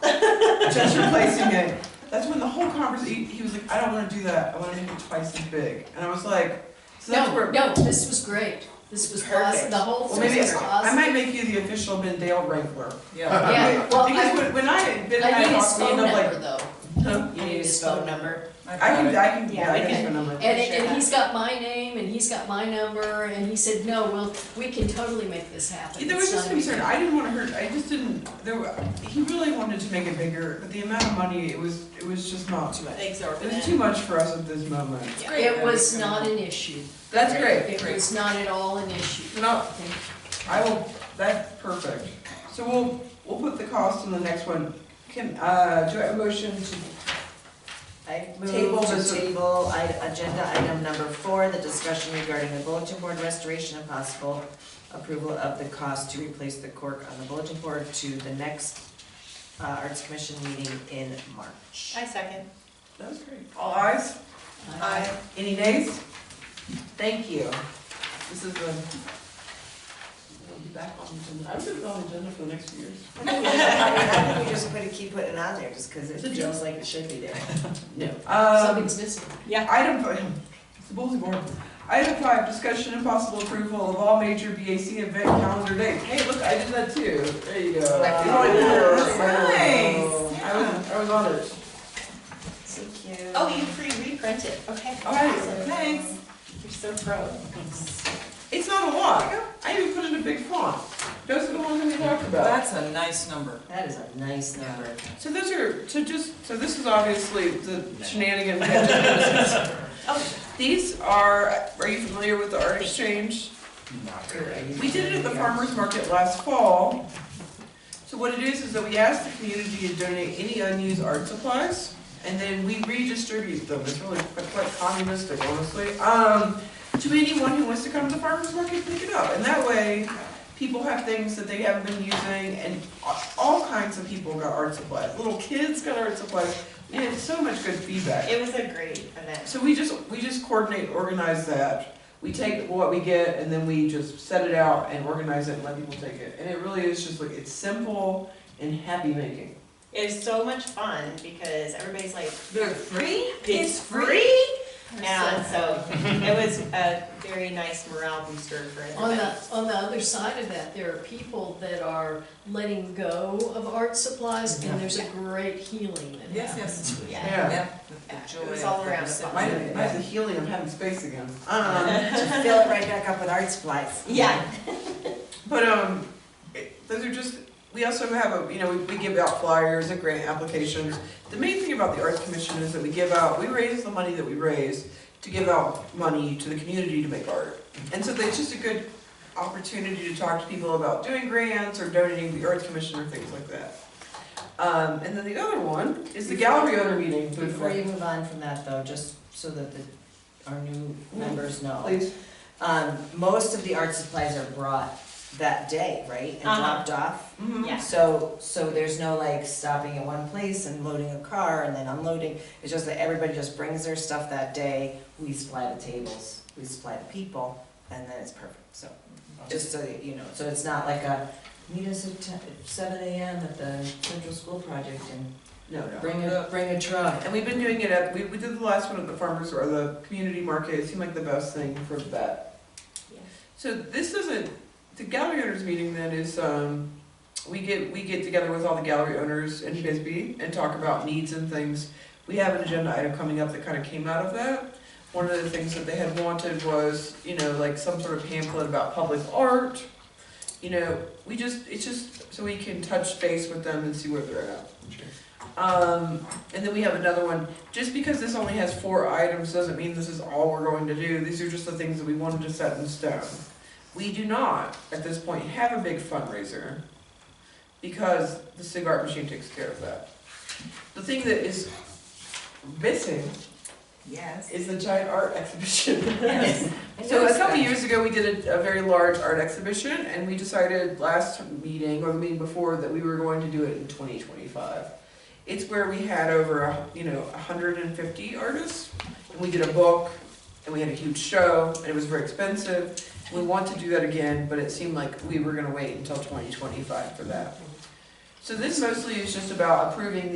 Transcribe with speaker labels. Speaker 1: just replacing it. That's when the whole conversation, he was like, I don't wanna do that, I wanna make it twice as big. And I was like, so that's
Speaker 2: No,
Speaker 1: where,
Speaker 2: no, this was great. This was awesome.
Speaker 1: Perfect.
Speaker 2: The whole
Speaker 1: well,
Speaker 2: thing
Speaker 1: maybe,
Speaker 2: was
Speaker 1: I
Speaker 2: awesome.
Speaker 1: might make you the official Mendale Wrangler.
Speaker 3: Yeah.
Speaker 2: Yeah, well,
Speaker 1: Because
Speaker 2: I,
Speaker 1: when, when I, Ben and
Speaker 2: I
Speaker 1: I
Speaker 2: need his
Speaker 1: talked, we
Speaker 2: phone
Speaker 1: ended up
Speaker 2: number
Speaker 1: like,
Speaker 2: though.
Speaker 1: huh?
Speaker 2: You need his phone number.
Speaker 1: I can, I can,
Speaker 4: Yeah,
Speaker 1: yeah, I
Speaker 4: we
Speaker 1: can
Speaker 2: can-
Speaker 1: phone number.
Speaker 2: And, it- and he's got my name and he's got my number and he said, no, we'll, we can totally make this happen.
Speaker 1: There was
Speaker 2: It's
Speaker 1: just
Speaker 2: not a big
Speaker 1: concern, I didn't wanna hurt, I just didn't, there were, he really wanted to make it bigger, but the amount of money, it was, it was just not.
Speaker 2: deal.
Speaker 1: It was too much for us at this moment.
Speaker 2: It was not an issue.
Speaker 1: That's great.
Speaker 2: It was not at all an issue.
Speaker 1: No, I will, that's perfect. So we'll, we'll put the cost in the next one. Can, uh, do I have a motion to
Speaker 4: I
Speaker 1: Table
Speaker 4: move to
Speaker 1: this-
Speaker 4: table i- agenda item number four, the discussion regarding the bulletin board restoration and possible approval of the cost to replace the cork on the bulletin board to the next uh, Arts Commission meeting in March.
Speaker 5: I second.
Speaker 1: That was great. All ayes? Any nays? Thank you. This is the, we'll be back on the agenda. I was gonna be on the agenda for the next few years.
Speaker 4: I think we just- I think we just put, keep putting it on there, just because it
Speaker 1: It's a joke.
Speaker 4: feels like it should be there.
Speaker 1: No. Um,
Speaker 2: Something's missing.
Speaker 1: item, fi- it's the bulletin board. Item five, discussion and possible approval of all major BAC event calendar dates. Hey, look, I did that too. There you go. Oh,
Speaker 4: Like-
Speaker 1: It's on here.
Speaker 4: Nice.
Speaker 1: I was, I was on it.
Speaker 4: Thank you.
Speaker 5: Oh, you pre-reprint it, okay.
Speaker 1: All right, thanks.
Speaker 5: You're so pro.
Speaker 1: It's not a lot. I even put in a big font. Those are the ones that we talked about.
Speaker 3: That's a nice number.
Speaker 4: That is a nice number.
Speaker 1: So those are, so just, so this is obviously the shenanigans.
Speaker 5: Oh,
Speaker 1: These are, are you familiar with the art exchange? We did it at the farmer's market last fall. So what it is, is that we ask the community to donate any unused art supplies, and then we redistribute them, it's really quite quite communistic, honestly, um, to anyone who wants to come to the farmer's market and pick it up, and that way, people have things that they haven't been using, and a- all kinds of people got art supplies, little kids got art supplies, we had so much good feedback.
Speaker 5: it was a great event.
Speaker 1: So we just, we just coordinate, organize that. We take what we get and then we just set it out and organize it and let people take it. And it really is just like, it's simple and happy making.
Speaker 5: It was so much fun because everybody's like,
Speaker 4: They're free?
Speaker 5: it's free? And so it was a very nice morale booster for
Speaker 2: On the,
Speaker 5: everybody.
Speaker 2: on the other side of that, there are people that are letting go of art supplies and there's a great healing that
Speaker 3: Yes,
Speaker 2: happens.
Speaker 3: yes.
Speaker 5: Yeah.
Speaker 1: Yeah.
Speaker 3: Yeah, the- the
Speaker 5: Yeah, it
Speaker 3: joy
Speaker 5: was all
Speaker 3: of the
Speaker 5: around
Speaker 3: recipient.
Speaker 1: Mine's mine's a healing, I'm having space again. Um,
Speaker 4: To fill it right back up with art supplies.
Speaker 5: Yeah,
Speaker 1: but, um, it- those are just, we also have a, you know, we, we give out flyers and grant applications. The main thing about the Arts Commission is that we give out, we raise the money that we raise to give out money to the community to make art. And so it's just a good opportunity to talk to people about doing grants or donating to the Arts Commission or things like that. Um, and then the other one is the gallery owner meeting.
Speaker 4: Before you move on from that though, just so that the, our new
Speaker 5: Mm.
Speaker 4: members know.
Speaker 1: Please.
Speaker 4: Um, most of the art supplies are brought that day, right, and
Speaker 5: Uh-huh.
Speaker 4: dropped off?
Speaker 1: Mhm.
Speaker 5: yeah.
Speaker 4: So, so there's no like stopping at one place and loading a car and then unloading, it's just that everybody just brings their stuff that day, we supply the tables, we supply the people, and then it's perfect, so. Just so that you know, so it's not like a, meet us at ten- at seven AM at the Central School Project and
Speaker 1: No, no.
Speaker 4: bring a, bring a truck.
Speaker 1: And we've been doing it at, we, we did the last one at the farmers or the community market, it seemed like the best thing for that.
Speaker 5: Yeah.
Speaker 1: So this isn't, the gallery owners meeting then is, um, we get, we get together with all the gallery owners in Bisbee and talk about needs and things. We have an agenda item coming up that kind of came out of that. One of the things that they had wanted was, you know, like some sort of pamphlet about public art. You know, we just, it's just so we can touch base with them and see where they're at. Um, and then we have another one. Just because this only has four items doesn't mean this is all we're going to do. These are just the things that we wanted to set in stone. We do not, at this point, have a big fundraiser because the cigar machine takes care of that. The thing that is missing
Speaker 4: Yes.
Speaker 1: is the giant art exhibition.
Speaker 4: I
Speaker 1: So a
Speaker 4: noticed
Speaker 1: couple
Speaker 4: that.
Speaker 1: years ago, we did a, a very large art exhibition, and we decided last meeting or the meeting before that we were going to do it in twenty twenty-five. It's where we had over, a hu- you know, hundred and fifty artists, and we did a book, and we had a huge show, and it was very expensive. We want to do that again, but it seemed like we were gonna wait until twenty twenty-five for that. So this mostly is just about approving